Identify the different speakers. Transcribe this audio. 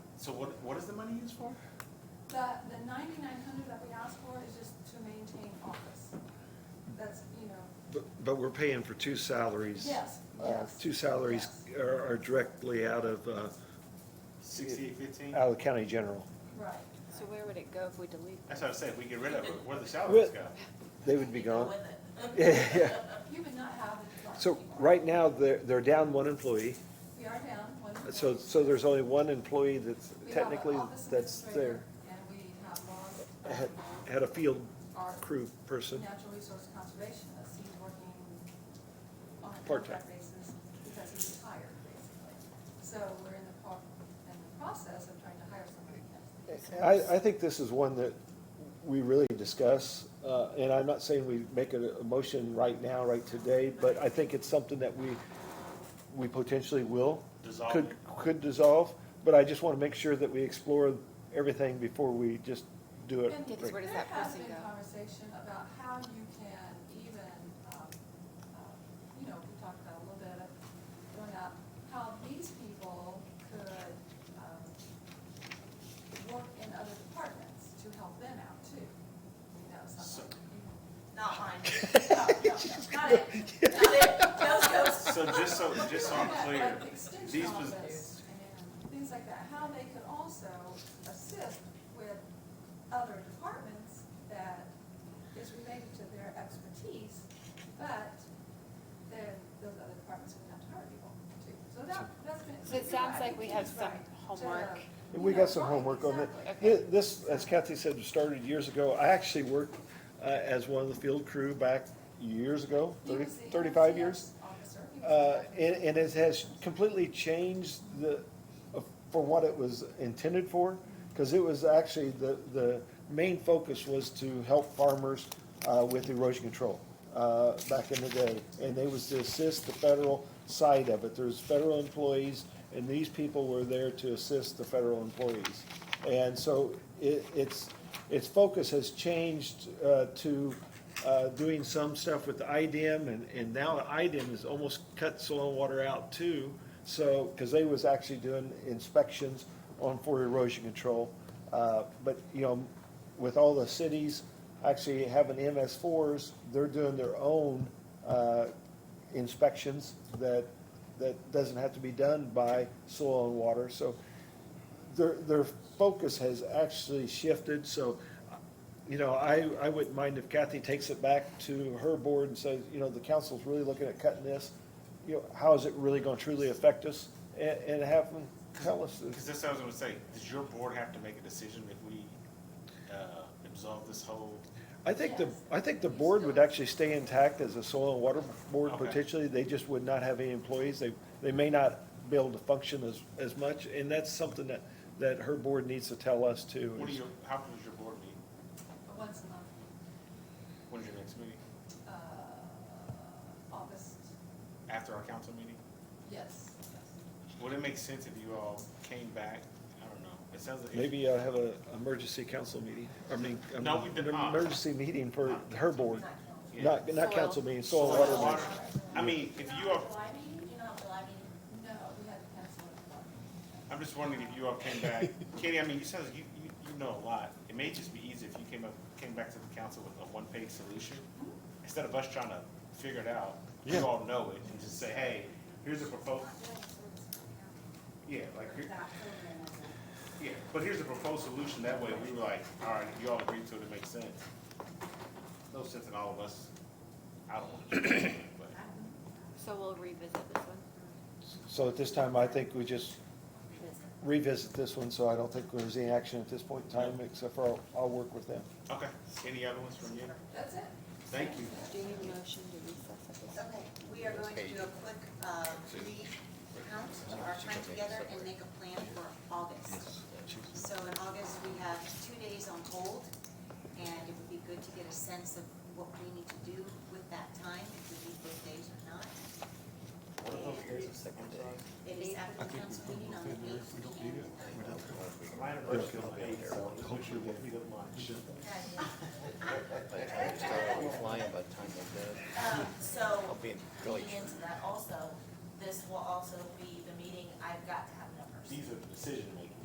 Speaker 1: So what, what is the money used for?
Speaker 2: The, the ninety-nine hundred that we asked for is just to maintain office. That's, you know,
Speaker 3: But, but we're paying for two salaries.
Speaker 2: yes,
Speaker 3: Uh,
Speaker 2: yes.
Speaker 3: Two salaries are, are directly out of, uh,
Speaker 1: Sixty-eight fifteen?
Speaker 3: out of the county general.
Speaker 2: Right.
Speaker 4: So where would it go if we delete?
Speaker 1: That's what I said, if we get rid of it, where the salaries go?
Speaker 3: They would be
Speaker 5: Go
Speaker 3: gone.
Speaker 5: with it.
Speaker 3: Yeah, yeah.
Speaker 2: You would not have the department.
Speaker 3: So
Speaker 2: anymore.
Speaker 3: right now, they're, they're down one employee.
Speaker 2: We are down one.
Speaker 3: So, so there's only one employee that's
Speaker 2: We have an
Speaker 3: technically,
Speaker 2: office
Speaker 3: that's there.
Speaker 2: administrator, And we have lost
Speaker 3: Had,
Speaker 2: um,
Speaker 3: had a field
Speaker 2: our
Speaker 3: crew person.
Speaker 2: natural resource conservationist. He's working on a
Speaker 3: Part-time.
Speaker 2: contract basis because he's retired, basically. So we're in the, pro- in the process of trying to hire somebody again.
Speaker 3: I, I think this is one that we really discuss, uh, and I'm not saying we make a, a motion right now, right today, but I think it's something that we, we potentially will.
Speaker 1: Dissolve
Speaker 3: Could, could dissolve, but I just wanna make sure that we explore everything before we just do it.
Speaker 2: And
Speaker 4: Because where does that person
Speaker 2: There has been
Speaker 4: go?
Speaker 2: conversation about how you can even, um, um, you know, we talked about a little bit of going up, how these people could um, work in other departments to help them out too. You know,
Speaker 1: So-
Speaker 2: something.
Speaker 5: Not mine.
Speaker 2: No, no, no, Not it.
Speaker 5: Not it. No, no.
Speaker 1: So just so, just so I'm clear,
Speaker 2: Like extension
Speaker 1: these pos-
Speaker 2: office and things like that, how they could also assist with other departments that is related to their expertise, but then those other departments would have to hire people too. So that, that's been.
Speaker 4: So it sounds like we have some homework.
Speaker 3: We got some homework on that.
Speaker 4: Okay.
Speaker 3: Thi- This, as Kathy said, started years ago. I actually worked, uh, as one of the field crew back years ago, thirty, thirty-five years.
Speaker 2: E
Speaker 3: Uh, and, and it has completely changed the, uh, for what it was intended for, because it was actually, the, the main focus was to help farmers, uh, with erosion control, uh, back in the day. And they was to assist the federal side of it. There's federal employees, and these people were there to assist the federal employees. And so it, it's, its focus has changed, uh, to, uh, doing some stuff with IDIM, and, and now IDIM has almost cut soil and water out too. So, because they was actually doing inspections on for erosion control. Uh, But, you know, with all the cities actually having MS fours, they're doing their own uh, inspections that, that doesn't have to be done by soil and water. So their, their focus has actually shifted, so, you know, I, I wouldn't mind if Kathy takes it back to her board and says, you know, the council's really looking at cutting this. You know, how is it really gonna truly affect us? And, and have them tell us.
Speaker 1: Because that's what I was gonna say, does your board have to make a decision if we, uh, absolve this whole?
Speaker 3: I think the, I think the board would actually stay intact as a soil and water board
Speaker 1: Okay.
Speaker 3: potentially. They just would not have any employees. They, they may not be able to function as, as much. And that's something that, that her board needs to tell us too.
Speaker 1: What do you, how often does your board meet?
Speaker 2: Once a month,
Speaker 1: When's your next meeting?
Speaker 2: uh, August,
Speaker 1: After our council meeting?
Speaker 2: uh, yes, yes.
Speaker 1: Would it make sense if you all came back? I don't know. It sounds like.
Speaker 3: Maybe uh, have a emergency council meeting, I mean, I
Speaker 1: No,
Speaker 3: mean,
Speaker 1: we did
Speaker 3: an
Speaker 1: not.
Speaker 3: emergency meeting for her board,
Speaker 1: Yeah.
Speaker 3: not, not
Speaker 4: Soil.
Speaker 3: council meeting, soil and water. meeting.
Speaker 1: I mean, if you all,
Speaker 5: July meeting? You know, how July meeting.
Speaker 2: No, we had to cancel it.
Speaker 1: I'm just wondering if you all came back. Katie, I mean, you sounds, you, you, you know a lot. It may just be easier if you came up, came back to the council with a one-page solution. Instead of us trying to figure it out, you
Speaker 3: Yeah.
Speaker 1: all know it and just say, hey, here's a proposal. Yeah, like, here- yeah, but here's a proposed solution. That way we were like, all right, if you all agree to it, it makes sense. No sense in all of us. I don't want to do it, but.
Speaker 4: So we'll revisit this one.
Speaker 3: So at this time, I think we just revisit this one, so I don't think there's any action at this point in time, except for I'll, I'll work with them.
Speaker 1: Okay, any other ones from you?
Speaker 2: That's it.
Speaker 1: Thank you.
Speaker 4: Do you need a motion to recess at this?
Speaker 5: Okay, we are going to do a quick uh, recount of our time together and make a plan for August. So in August, we have two days on hold, and it would be good to get a sense of what we need to do with that time, if we need those days or not. It is after the council meeting on the eighth.
Speaker 6: I'll be flying by the time we're done.
Speaker 5: Um, so,
Speaker 6: I'll be in
Speaker 5: leading
Speaker 6: Philly.
Speaker 5: into that also, this will also be the meeting, I've got to have numbers.
Speaker 1: These are the decision makers.